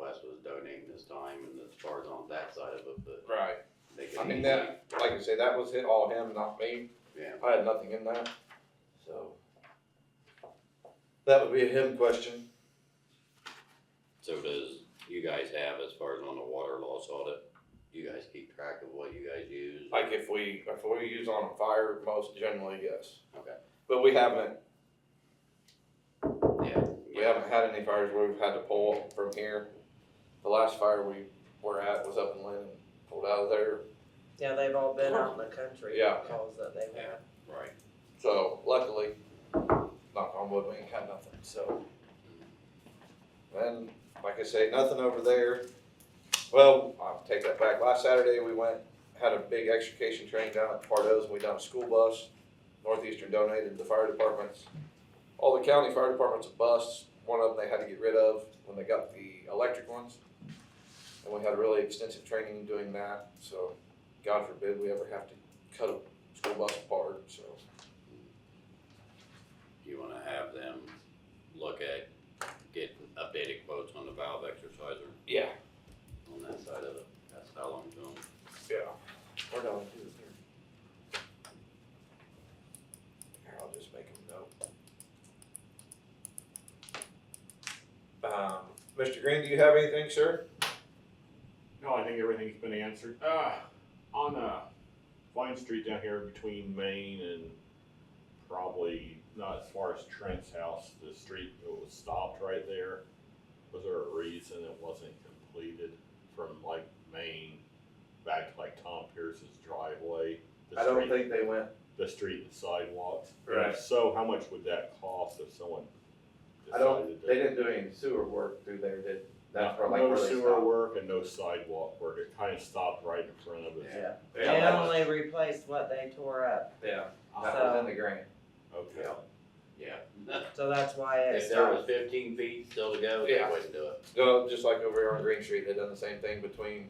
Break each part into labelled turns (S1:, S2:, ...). S1: West was donating this time and as far as on that side of it, but
S2: Right.
S1: they
S3: I
S1: could
S3: mean,
S1: easily,
S3: that, like I say, that was hit all him, not me.
S1: yeah.
S3: I had nothing in that, so. That would be a him question.
S1: So does, you guys have as far as on the water loss audit, you guys keep track of what you guys use?
S3: Like if we, if we use on a fire, most generally, yes.
S1: Okay.
S3: But we haven't,
S1: Yeah.
S3: we haven't had any fires where we've had to pull from here. The last fire we were at was up in Lynn, pulled out of there,
S4: Yeah, they've all been out in the country.
S3: Yeah.
S4: Calls that they've had.
S1: Right.
S3: so luckily, knock on wood, we ain't had nothing, so. And like I say, nothing over there. Well, I'll take that back. Last Saturday, we went, had a big extrication training down at Pardo's, and we done a school bus. Northeastern donated the fire departments. All the county fire departments, a bus, one of them they had to get rid of when they got the electric ones. And we had really extensive training doing that, so God forbid we ever have to cut a school bus apart, so.
S1: You wanna have them look at, get updated quotes on the valve exerciser
S3: Yeah.
S1: on that side of it? That's how long it's going.
S3: Yeah. Or no, I do it here. Here, I'll just make a note. Um, Mr. Green, do you have anything, sir?
S5: No, I think everything's been answered. Uh, on, uh, Vine Street down here between Main and probably not as far as Trent's house, the street that was stopped right there. Was there a reason it wasn't completed from like Main back to like Tom Pierce's driveway? The
S3: I don't
S5: street-
S3: think they went,
S5: The street and sidewalks. And
S3: Right.
S5: If so, how much would that cost if someone
S3: I don't,
S5: decided to?
S3: they didn't do any sewer work through there, did, that's where like
S5: No
S3: where they
S5: sewer
S3: stopped.
S5: work and no sidewalk work. It kind of stopped right in front of us.
S1: Yeah.
S4: They
S3: that was-
S4: only replaced what they tore up,
S3: Yeah, that was in the grant.
S5: Okay.
S1: Yeah.
S4: so that's why it
S1: If there was
S4: stopped.
S1: fifteen feet still to go, they
S3: Yeah.
S1: wouldn't do it.
S3: No, just like over here on Green Street, they done the same thing between,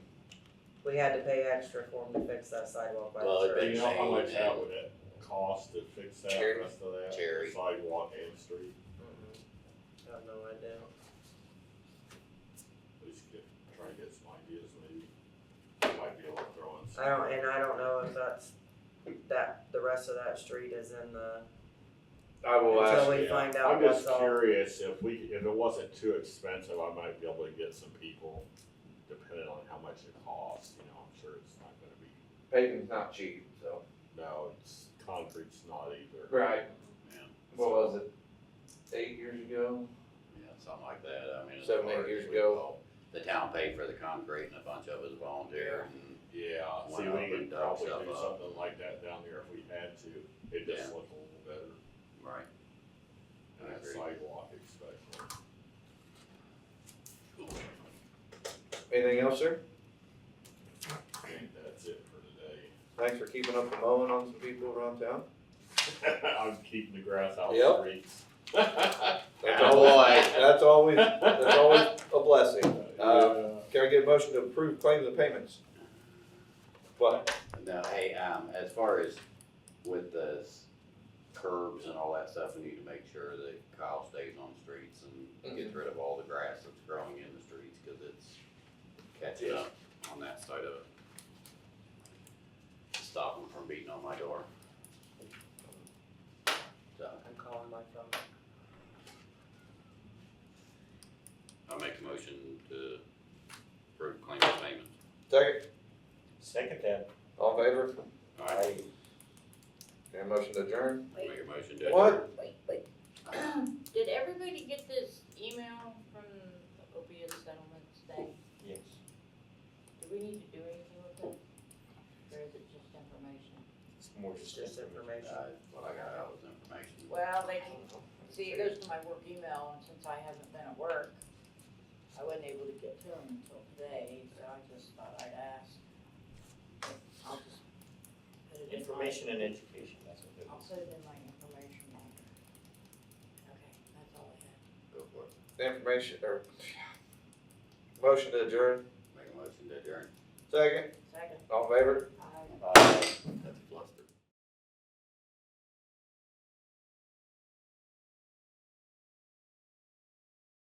S4: We had to pay extra for them to fix that sidewalk by
S1: Well,
S4: the
S1: it'd
S5: Do
S4: church.
S5: you know how much
S1: Yeah.
S5: that would it cost to fix that
S3: Cherry.
S5: rest of that
S1: Cherry.
S5: sidewalk and street?
S4: Mm-mm. I have no idea.
S5: At least get, try to get some ideas maybe. You Might be able to throw in some.
S4: I don't, and I don't know if that's, that, the rest of that street is in the,
S3: I will
S4: Until
S3: ask,
S4: we
S5: Yeah.
S4: find out
S5: I'm just
S4: what's all-
S5: curious if we, if it wasn't too expensive, I might be able to get some people, depending on how much it costs, you know, I'm sure it's not gonna be,
S3: paving's not cheap, so.
S5: no, it's, concrete's not either.
S3: Right.
S1: Yeah,
S3: What was it, eight years ago?
S1: yeah, something like that, I mean. it's
S3: Seven, eight
S1: hard,
S3: years
S1: we
S3: ago.
S1: all- The town paid for the concrete and a bunch of us volunteered and
S5: Yeah,
S1: Why
S5: see,
S1: not
S5: we
S1: put
S5: could
S1: that
S5: probably
S1: stuff
S5: do
S1: up?
S5: something like that down here if we had to, it'd just look a little better,
S1: Right. I
S5: and that
S1: agree.
S5: sidewalk especially.
S3: Anything else, sir?
S5: I think that's it for today.
S3: Thanks for keeping up the mowing on some people around town.
S5: I'm keeping the grass out
S3: Yep. Oh,
S5: of streets. Yeah.
S3: That's
S1: Attaboy.
S3: always, that's always, that's always a blessing. Uh, Can I get a motion to approve claims and payments? What?
S1: No, hey, um, as far as with the s- curbs and all that stuff, we need to make sure that Kyle stays on streets and
S3: Mhm.
S1: gets rid of all the grass that's growing in the streets, cause it's catching up on that side of it. To Stop them from beating on my door. So,
S4: I'm calling my phone.
S1: I make a motion to approve claim of payment.
S3: Second,
S6: Second that.
S3: all in favor?
S1: Alright,
S3: And motion to adjourn?
S1: make a motion to.
S3: What?
S1: adjourn.
S7: Wait, wait. Did everybody get this email from the opiate settlements thing?
S6: Yes.
S7: Do we need to do anything with it? Or is it just information?
S6: It's more
S4: It's just information.
S1: Uh, What I got out was information.
S7: Well, they can, see, it goes to my work email, and since I haven't been at work, I wasn't able to get to them until today, so I just thought I'd ask. I'll just put it in my.
S6: Information and education, that's what it
S7: I'll
S6: is.
S7: put it in my information locker. Okay, that's all I have.
S1: Go for it.
S3: Information, or, motion to adjourn?
S1: Make a motion to adjourn.
S3: Second,
S7: Second,
S3: all in favor?
S7: I.
S6: Bye.
S1: That's a